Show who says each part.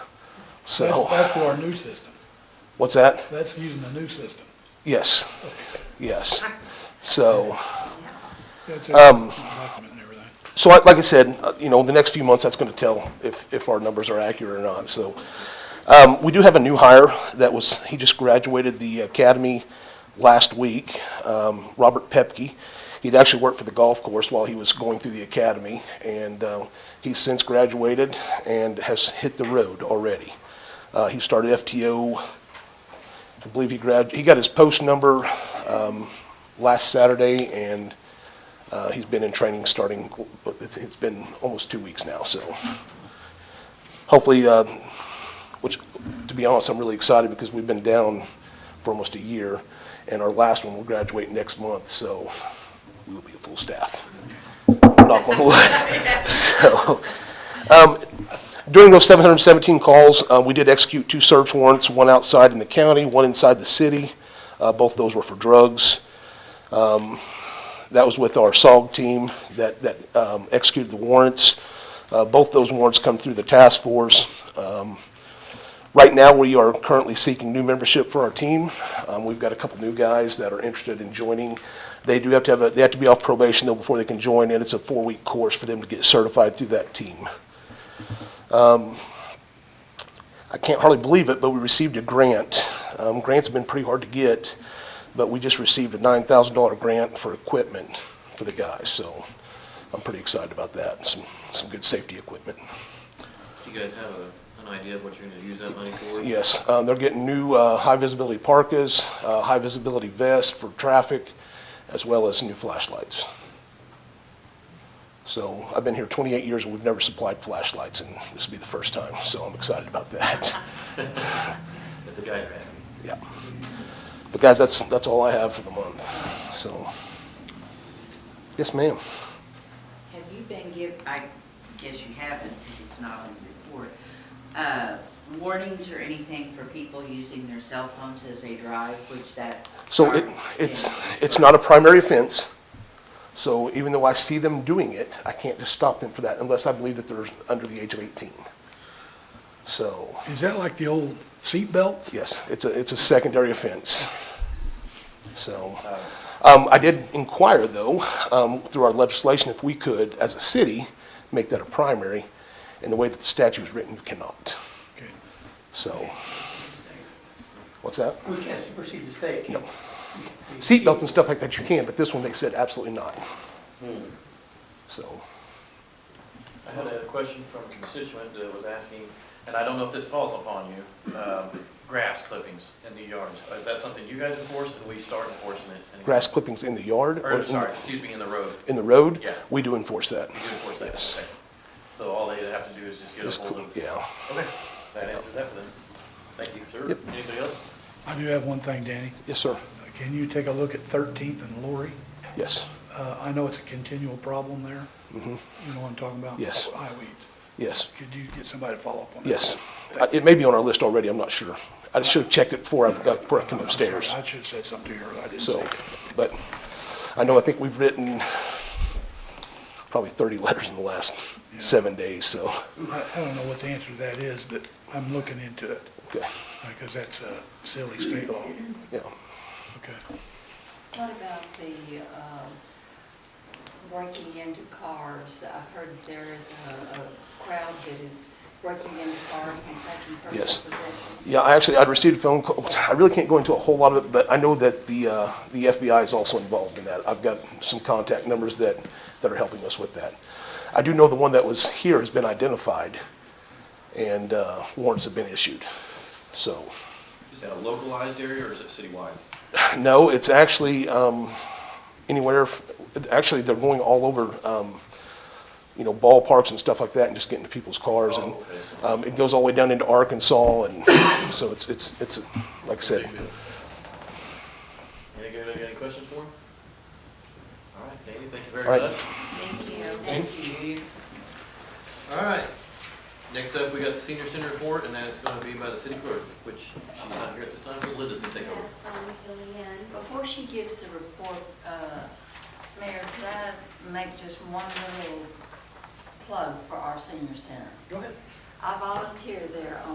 Speaker 1: That's,
Speaker 2: So,
Speaker 1: that's for our new system.
Speaker 2: what's that?
Speaker 1: That's using the new system.
Speaker 2: Yes, yes. So,
Speaker 1: That's in
Speaker 2: Um,
Speaker 1: the document and everything.
Speaker 2: so I- like I said, uh, you know, the next few months, that's going to tell if, if our numbers are accurate or not, so. Um, We do have a new hire that was, he just graduated the academy last week, um, Robert Pepke. He'd actually worked for the golf course while he was going through the academy, and uh, he's since graduated and has hit the road already. Uh, He started FTO, I believe he grad, he got his post number um, last Saturday, and uh, he's been in training starting, it's it's been almost two weeks now, so hopefully uh, which, to be honest, I'm really excited because we've been down for almost a year, and our last one will graduate next month, so we will be a full staff. Knock on wood. So, um, during those 717 calls, uh, we did execute two search warrants, one outside in the county, one inside the city. Uh, Both those were for drugs. That was with our SOG team that, that um, executed the warrants. Uh, Both those warrants come through the task force. Um, Right now, we are currently seeking new membership for our team. Um, We've got a couple new guys that are interested in joining. They do have to have, a they have to be off probation though before they can join, and it's a four-week course for them to get certified through that team. I can't hardly believe it, but we received a grant. Um, grants have been pretty hard to get, but we just received a nine thousand dollar grant for equipment for the guys, so I'm pretty excited about that. Some, some good safety equipment.
Speaker 3: Do you guys have a, an idea of what you're gonna use that money for?
Speaker 2: Yes, um, they're getting new, uh, high visibility parkas, uh, high visibility vest for traffic, as well as new flashlights. So I've been here twenty-eight years, and we've never supplied flashlights, and this will be the first time, so I'm excited about that.
Speaker 3: That the guys are having?
Speaker 2: Yeah. But guys, that's, that's all I have for the month, so. Yes, ma'am.
Speaker 4: Have you been giv, I guess you haven't, because it's not on the report, uh, warnings or anything for people using their cell phones as they drive, which that.
Speaker 2: So it, it's, it's not a primary offense, so even though I see them doing it, I can't just stop them for that unless I believe that they're under the age of 18. So,
Speaker 1: Is that like the old seatbelt?
Speaker 2: yes, it's a, it's a secondary offense. So, um, I did inquire though, um, through our legislation, if we could, as a city, make that a primary, and the way that the statute is written, you cannot.
Speaker 1: Okay.
Speaker 2: So, what's that?
Speaker 5: We can't supersede the state, can
Speaker 2: No.
Speaker 5: we?
Speaker 2: Seatbelts and stuff like that you can, but this one they said absolutely not.
Speaker 3: Hmm.
Speaker 2: So,
Speaker 3: I had a question from a constituent that was asking, and I don't know if this falls upon you, um, grass clippings in the yards. Is that something you guys enforce and we start enforcing it? in-
Speaker 2: grass clippings in the yard? in
Speaker 3: Or,
Speaker 2: the-
Speaker 3: sorry, excuse me, in the road.
Speaker 2: In the road?
Speaker 3: Yeah.
Speaker 2: We do enforce that.
Speaker 3: You do enforce that?
Speaker 2: Yes.
Speaker 3: Okay. So all they have to do is just get
Speaker 2: Just
Speaker 3: a hold
Speaker 2: cool,
Speaker 3: of.
Speaker 2: yeah.
Speaker 3: Okay, that answers that for them. Thank you, sir.
Speaker 2: Yep.
Speaker 3: Anybody else?
Speaker 1: I do have one thing, Danny. Uh,
Speaker 2: Yes, sir.
Speaker 1: Can you take a look at Thirteenth and Lori?
Speaker 2: Yes,
Speaker 1: Uh, I know it's a continual problem there. You know what I'm talking about?
Speaker 2: Mm-hmm. Yes.
Speaker 1: Highweeds.
Speaker 2: yes,
Speaker 1: Could you get somebody to follow up on that?
Speaker 2: yes. Uh, It may be on our list already, I'm not sure. I should have checked it before I, before I come upstairs.
Speaker 1: I should have said something to her. I didn't say
Speaker 2: So,
Speaker 1: it.
Speaker 2: but I know, I think we've written probably 30 letters in the last seven days, so,
Speaker 1: I, I don't know what the answer to that is, but I'm looking into it,
Speaker 2: okay,
Speaker 1: because that's a silly state law.
Speaker 2: yeah.
Speaker 1: Okay.
Speaker 6: What about the um, breaking into cars? I heard there is a a crowd that is breaking into cars and taking
Speaker 2: Yes.
Speaker 6: personal possessions.
Speaker 2: Yeah, I actually, I'd received a phone call, I really can't go into a whole lot of it, but I know that the, uh, the FBI is also involved in that. I've got some contact numbers that, that are helping us with that. I do know the one that was here has been identified, and uh, warrants have been issued. So,
Speaker 3: Is that a localized area or is it citywide?
Speaker 2: no, it's actually um, anywhere, actually, they're going all over, um, you know, ballparks and stuff like that, and just getting to people's cars, and
Speaker 3: Oh, okay, so-
Speaker 2: um, it goes all the way down into Arkansas, and so it's, it's, it's, like I said,
Speaker 3: Anybody got any questions for him? All right, Danny, thank you
Speaker 2: All
Speaker 3: very
Speaker 2: right.
Speaker 3: much.
Speaker 4: Thank you.
Speaker 3: Thank you. All right, next up, we got the senior center report, and that is gonna be by the city clerk, which she's not here at this time, so Linda's gonna take over.
Speaker 6: Yes, I'm filling in. Before she gives the report, uh, Mayor, could I make just one little plug for our senior center?
Speaker 3: Go ahead.
Speaker 6: I volunteer there on